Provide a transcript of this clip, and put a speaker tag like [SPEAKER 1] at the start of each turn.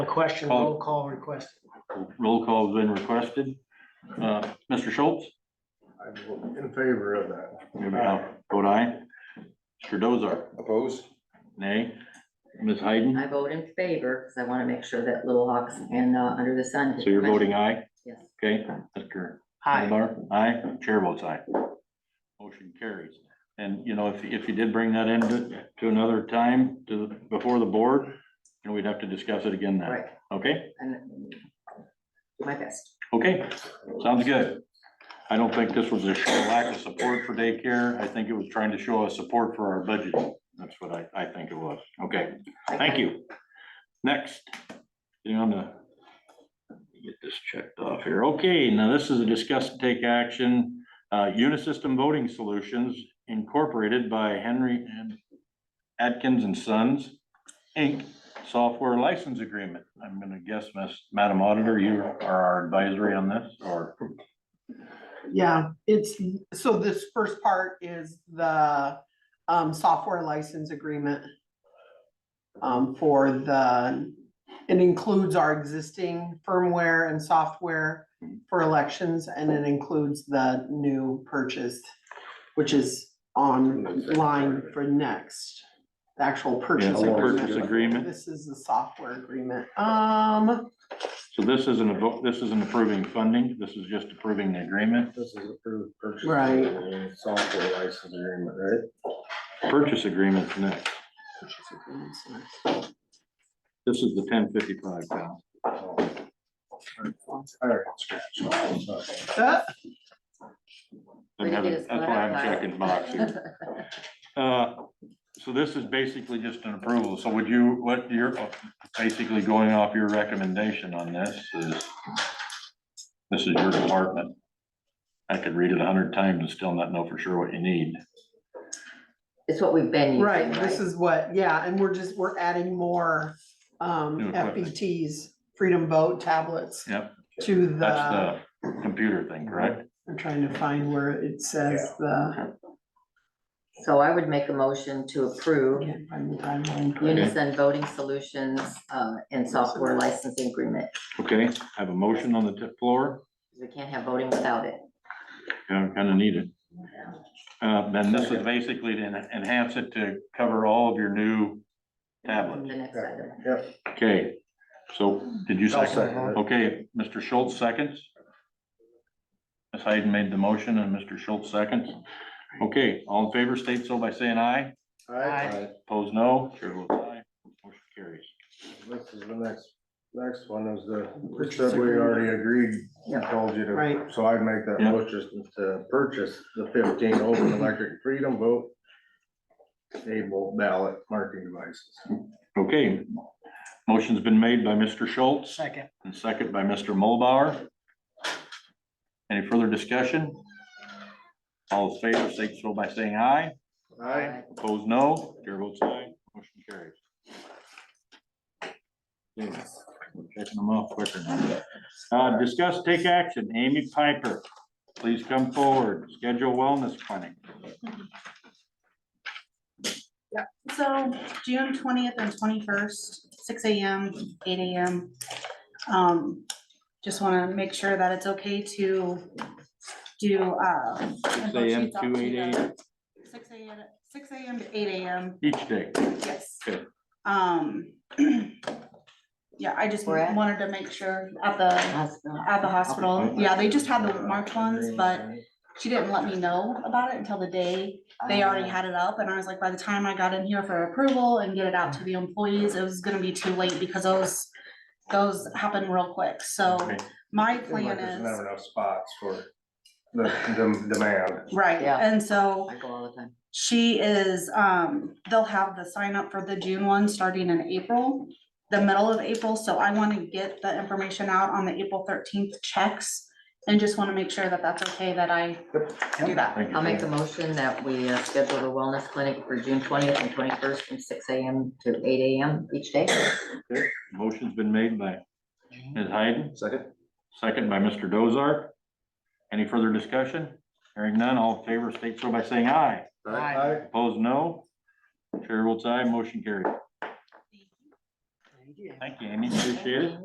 [SPEAKER 1] A question,
[SPEAKER 2] Call.
[SPEAKER 1] roll call request.
[SPEAKER 2] Roll call's been requested. Uh, Mr. Schultz?
[SPEAKER 3] I'm in favor of that.
[SPEAKER 2] Vote aye. Mr. Dozar?
[SPEAKER 3] Opposed?
[SPEAKER 2] Nay. Ms. Hayden?
[SPEAKER 4] I vote in favor because I want to make sure that Little Hawks and uh, Under the Sun.
[SPEAKER 2] So you're voting aye?
[SPEAKER 4] Yes.
[SPEAKER 2] Okay, Mr.
[SPEAKER 1] Hi,
[SPEAKER 2] Mulbar? Aye. Chair votes aye. Motion carries. And, you know, if, if you did bring that in to, to another time, to, before the board, and we'd have to discuss it again then.
[SPEAKER 4] Right,
[SPEAKER 2] Okay,
[SPEAKER 4] and do my best.
[SPEAKER 2] okay, sounds good. I don't think this was a show of lack of support for daycare. I think it was trying to show us support for our budget. That's what I, I think it was. Okay. Thank you. Next, getting on the, get this checked off here. Okay, now this is a discuss and take action, uh, Unisystem Voting Solutions Incorporated by Henry and Atkins and Sons, Inc., software license agreement. I'm gonna guess, Miss, Madam Auditor, you are our advisory on this, or,
[SPEAKER 5] Yeah, it's, so this first part is the um software license agreement. Um, for the, it includes our existing firmware and software for elections, and it includes the new purchase. Which is online for next, the actual
[SPEAKER 2] yeah,
[SPEAKER 5] purchase.
[SPEAKER 2] the purchase
[SPEAKER 5] agreement.
[SPEAKER 2] agreement.
[SPEAKER 5] This is the software agreement, um,
[SPEAKER 2] So this isn't a vote, this isn't approving funding, this is just approving the agreement,
[SPEAKER 3] This is approved purchase.
[SPEAKER 5] Right.
[SPEAKER 3] and Software license agreement, right?
[SPEAKER 2] purchase agreement's next.
[SPEAKER 5] purchase agreement, sorry.
[SPEAKER 2] This is the ten fifty-five pound.
[SPEAKER 3] Alright.
[SPEAKER 5] Uh,
[SPEAKER 4] Way to
[SPEAKER 2] That's
[SPEAKER 4] get us
[SPEAKER 2] why I'm
[SPEAKER 4] clarified.
[SPEAKER 2] checking box here. Uh, So this is basically just an approval. So would you, what you're basically going off your recommendation on this is, this is your department. I could read it a hundred times and still not know for sure what you need.
[SPEAKER 4] It's what we've been using,
[SPEAKER 5] Right, this
[SPEAKER 4] right?
[SPEAKER 5] is what, yeah, and we're just, we're adding more
[SPEAKER 2] New
[SPEAKER 5] um
[SPEAKER 2] equipment.
[SPEAKER 5] FBTs, Freedom Boat tablets.
[SPEAKER 2] Yep.
[SPEAKER 5] To the,
[SPEAKER 2] That's the computer thing, correct?
[SPEAKER 5] I'm trying to find where it says the.
[SPEAKER 4] So I would make a motion to approve
[SPEAKER 5] can't find the timeline for it.
[SPEAKER 4] Unison Voting Solutions uh, and Software Licensing Agreement.
[SPEAKER 2] Okay, I have a motion on the tip floor.
[SPEAKER 4] We can't have voting without it.
[SPEAKER 2] Kind of needed. Uh, Then this is basically to en- enhance it to cover all of your new
[SPEAKER 4] The
[SPEAKER 2] tablets.
[SPEAKER 4] next item.
[SPEAKER 3] Yep.
[SPEAKER 2] Okay, so did you
[SPEAKER 3] I'll
[SPEAKER 2] second?
[SPEAKER 3] second it.
[SPEAKER 2] Okay, Mr. Schultz seconds. Ms. Hayden made the motion and Mr. Schultz seconds. Okay, all in favor state so by saying aye.
[SPEAKER 3] Alright,
[SPEAKER 2] Opposed, no. Chair votes aye. Motion carries.
[SPEAKER 3] This is the next, next one is the, we
[SPEAKER 5] Purchase
[SPEAKER 3] said we already agreed, we
[SPEAKER 4] Yeah.
[SPEAKER 3] told you to,
[SPEAKER 5] Right.
[SPEAKER 3] so I make that
[SPEAKER 2] Yeah.
[SPEAKER 3] motion to purchase the fifteen open electric freedom vote. Able ballot marking devices.
[SPEAKER 2] Okay, motion's been made by Mr. Schultz
[SPEAKER 1] second.
[SPEAKER 2] and second by Mr. Mulbauer. Any further discussion? All in favor state so by saying aye.
[SPEAKER 3] Aye.
[SPEAKER 2] Opposed, no. Chair votes aye. Motion carries. Okay, we're Checking them off quicker now. Uh, discuss, take action. Amy Piper, please come forward. Schedule wellness clinic.
[SPEAKER 6] So June twentieth and twenty-first, six AM, eight AM. Um, just wanna make sure that it's okay to do, uh.
[SPEAKER 2] Six AM to eight AM
[SPEAKER 6] Six AM, six AM to eight AM,
[SPEAKER 2] each day.
[SPEAKER 6] yes.
[SPEAKER 2] Okay.
[SPEAKER 6] Um, yeah, I just
[SPEAKER 4] Where at?
[SPEAKER 6] wanted to make sure at the, at the hospital, yeah, they just had the March ones, but she didn't let me know about it until the day
[SPEAKER 4] Oh,
[SPEAKER 6] they already
[SPEAKER 4] Uh,
[SPEAKER 6] had it up and I was like, by the time I got in here for approval and get it out to the employees, it was gonna be too late because those. Those happen real quick, so
[SPEAKER 2] Okay.
[SPEAKER 6] my
[SPEAKER 3] Seems like
[SPEAKER 6] plan
[SPEAKER 3] There's
[SPEAKER 6] is,
[SPEAKER 3] never enough spots for the dem- demand.
[SPEAKER 6] right,
[SPEAKER 4] Yeah.
[SPEAKER 6] and so
[SPEAKER 4] I go all the time.
[SPEAKER 6] she is, um, they'll have the sign up for the June one starting in April. The middle of April, so I wanna get the information out on the April thirteenth checks and just wanna make sure that that's okay that I do that.
[SPEAKER 2] Thank you.
[SPEAKER 4] I'll make a motion that we uh, schedule the wellness clinic for June twentieth and twenty-first from six AM to eight AM each day.
[SPEAKER 2] Motion's been made by Ms. Hayden,
[SPEAKER 3] Second?
[SPEAKER 2] second by Mr. Dozart. Any further discussion? Hearing none, all in favor state so by saying aye.
[SPEAKER 1] Aye.
[SPEAKER 2] Opposed, no. Chair votes aye, motion carries.
[SPEAKER 1] Thank
[SPEAKER 2] Thank you, Amy. Appreciate it.